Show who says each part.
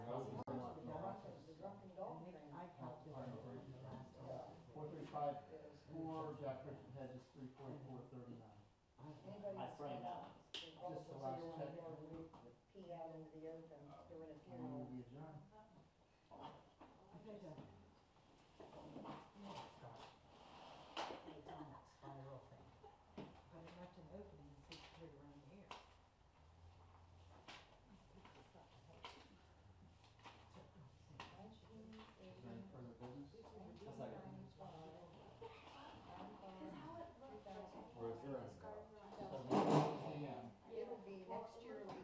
Speaker 1: anybody
Speaker 2: My friend.
Speaker 1: stand up. They roll
Speaker 3: Just the
Speaker 1: so you
Speaker 3: last
Speaker 1: wanna
Speaker 3: check.
Speaker 1: go and Pee out into the open during a
Speaker 3: I move
Speaker 1: funeral.
Speaker 3: we adjourn.
Speaker 4: I think I